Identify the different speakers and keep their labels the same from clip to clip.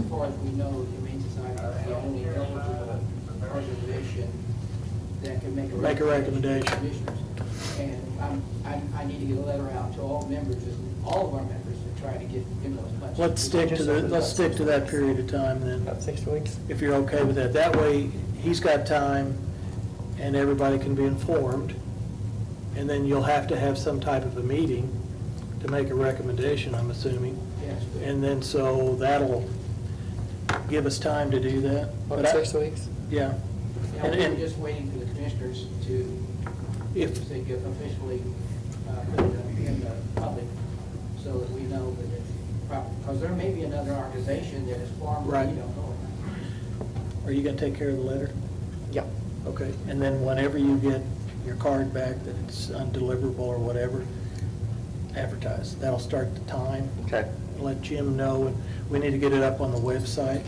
Speaker 1: know the Humane Society is the only eligible organization that can make a.
Speaker 2: Make a recommendation.
Speaker 1: to Commissioners. And I'm, I, I need to get a letter out to all members, all of our members, to try to get in those places.
Speaker 2: Let's stick to the, let's stick to that period of time then,
Speaker 3: About six weeks?
Speaker 2: if you're okay with that. That way, he's got time and everybody can be informed. And then you'll have to have some type of a meeting to make a recommendation, I'm assuming.
Speaker 1: Yes.
Speaker 2: And then, so that'll give us time to do that. But
Speaker 3: About
Speaker 2: I-
Speaker 3: six weeks?
Speaker 2: Yeah.
Speaker 1: Now,
Speaker 2: And,
Speaker 1: we're
Speaker 2: and
Speaker 1: just waiting for the commissioners to,
Speaker 2: if,
Speaker 1: if they get officially, uh, put it in the public, so that we know that it's proper. Because there may be another organization that is far more,
Speaker 2: Right.
Speaker 1: you don't know about.
Speaker 2: are you gonna take care of the letter?
Speaker 3: Yeah.
Speaker 2: Okay, and then whenever you get your card back that it's undeliverable or whatever, advertise. That'll start the time.
Speaker 3: Okay.
Speaker 2: Let Jim know, and we need to get it up on the website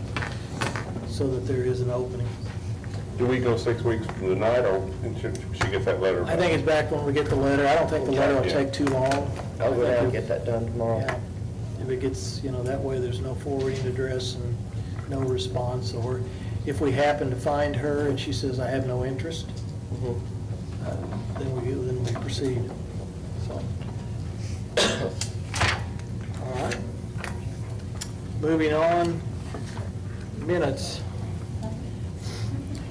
Speaker 2: so that there is an opening.
Speaker 4: Do we go six weeks from tonight, or should she get that letter?
Speaker 2: I think it's back when we get the letter. I don't think the letter will
Speaker 4: Okay, yeah.
Speaker 2: take too long.
Speaker 3: I'll go down and
Speaker 2: I
Speaker 3: get
Speaker 2: think
Speaker 3: that done
Speaker 2: we'll-
Speaker 3: tomorrow.
Speaker 2: yeah. If it gets, you know, that way there's no forwarding address and no response, or if we happen to find her and she says, I have no interest,
Speaker 3: Mhm.
Speaker 2: Uh, then we, then we proceed, so. All right. Moving on, minutes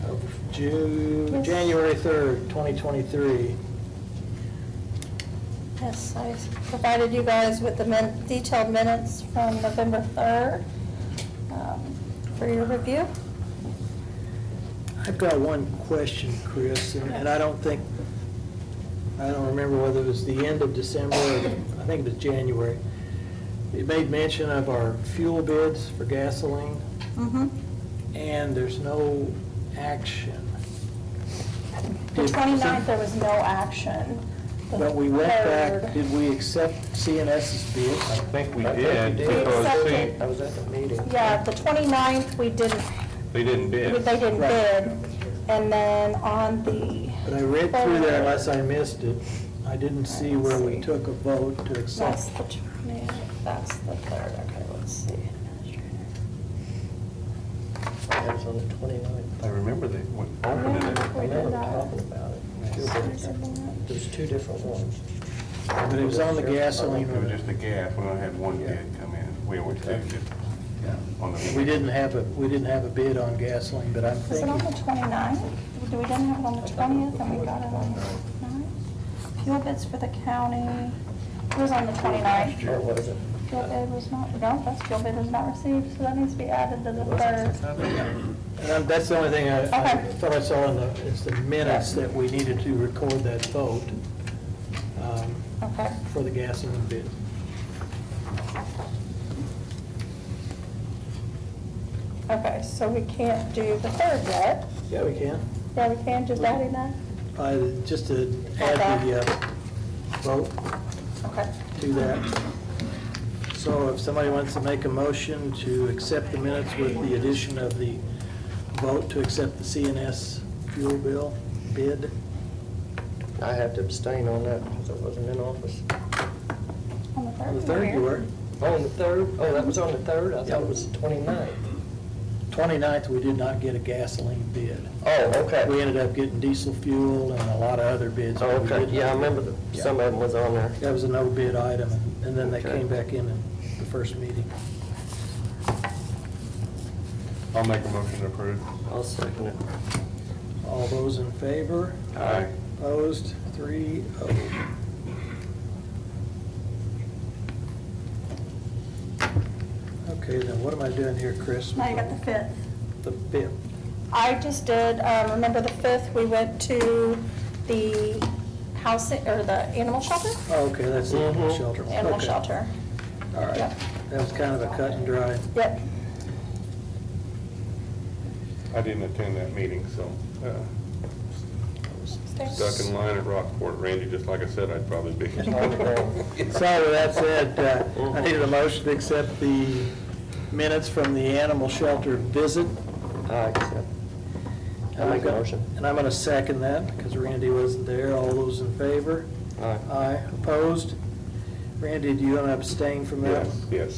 Speaker 2: of Ju, January 3rd, 2023.
Speaker 5: Yes, I provided you guys with the min- detailed minutes from November 3rd um, for your review.
Speaker 2: I've got one question, Chris, and and I don't think, I don't remember whether it was the end of December or, I think it was January. It made mention of our fuel bids for gasoline.
Speaker 5: Mhm.
Speaker 2: and there's no action.
Speaker 5: The 29th, there was no action. The
Speaker 2: But we went back,
Speaker 5: 3rd,
Speaker 2: did we accept CNS's
Speaker 3: I
Speaker 2: bid?
Speaker 4: think we
Speaker 3: I think
Speaker 4: did,
Speaker 3: we
Speaker 4: because
Speaker 5: Accepted.
Speaker 4: see,
Speaker 3: I was at the meeting.
Speaker 5: Yeah, the 29th, we didn't,
Speaker 4: they didn't
Speaker 5: they
Speaker 4: bid.
Speaker 5: didn't
Speaker 2: Right.
Speaker 5: bid. And then on the,
Speaker 2: But I read through there unless I missed it. I didn't see where we took a vote to
Speaker 5: that's
Speaker 2: accept.
Speaker 5: the, 20 that's the 3rd, okay, let's see.
Speaker 3: That was on the 29th.
Speaker 4: I remember they went open it.
Speaker 5: Yeah,
Speaker 3: I
Speaker 5: we
Speaker 3: remember
Speaker 5: did not.
Speaker 3: talking about it. Two
Speaker 5: There's
Speaker 3: different-
Speaker 5: a-
Speaker 3: There's two different ones.
Speaker 2: But it was on the gasoline.
Speaker 4: It was just a gap, we only had one bid come in, we always do. On the-
Speaker 2: We didn't have a, we didn't have a bid on gasoline, but I'm
Speaker 5: Was it
Speaker 2: thinking,
Speaker 5: on the 29th? We didn't have it on the 20th, and we got it on the 9th? Fuel bids for the county, it was on the 29th.
Speaker 3: Or was it?
Speaker 5: Fuel bid was not, no, that's fuel bid was not received, so that needs to be added to the third.
Speaker 2: and I'm- that's the only thing I, I
Speaker 5: Okay.
Speaker 2: thought I saw in the, it's the minutes that we needed to record that vote um,
Speaker 5: Okay.
Speaker 2: for the gasoline bid.
Speaker 5: Okay, so we can't do the third yet.
Speaker 2: Yeah, we can.
Speaker 5: Yeah, we can, just adding that?
Speaker 2: Uh, Just to add the uh, vote
Speaker 5: Okay.
Speaker 2: to that. So if somebody wants to make a motion to accept the minutes with the addition of the vote to accept the CNS fuel bill bid,
Speaker 3: I had to abstain on that because I wasn't in office.
Speaker 5: On the
Speaker 2: on
Speaker 5: third.
Speaker 2: the third you were,
Speaker 3: On the 3rd? Oh, that was on the 3rd? I thought it was the 29th.
Speaker 2: 29th, we did not get a gasoline bid.
Speaker 3: Oh, okay.
Speaker 2: We ended up getting diesel fuel and a lot of other bids.
Speaker 3: Oh,
Speaker 2: but we
Speaker 3: okay,
Speaker 2: did
Speaker 3: yeah, I
Speaker 2: not-
Speaker 3: remember that
Speaker 2: Yeah.
Speaker 3: some of them was on there.
Speaker 2: That was a no bid item, and then they
Speaker 3: Okay.
Speaker 2: came back in in the first meeting.
Speaker 4: I'll make a motion to approve.
Speaker 3: I'll second it.
Speaker 2: All those in favor?
Speaker 4: Aye.
Speaker 2: Opposed, three oh. Okay, then what am I doing here, Chris?
Speaker 5: Now you got the fifth.
Speaker 2: The fifth.
Speaker 5: I just did, uh, remember the 5th, we went to the housing, or the animal shelter?
Speaker 2: Oh, okay, that's the animal
Speaker 3: Mhm.
Speaker 2: shelter.
Speaker 5: Animal
Speaker 2: Okay.
Speaker 5: shelter.
Speaker 2: All right,
Speaker 5: Yep.
Speaker 2: that was kind of a cut and dry.
Speaker 5: Yep.
Speaker 4: I didn't attend that meeting, so, uh, stuck in line at Rockport, Randy, just like I said, I'd probably be.
Speaker 2: So with that said, uh, I needed a motion to accept the minutes from the animal shelter visit.
Speaker 3: I accept. I make a motion.
Speaker 2: And I'm going to second that, because Randy wasn't there. All those in favor?
Speaker 3: Aye.
Speaker 2: Aye, opposed? Randy, do you want to abstain from that?
Speaker 4: Yes, yes.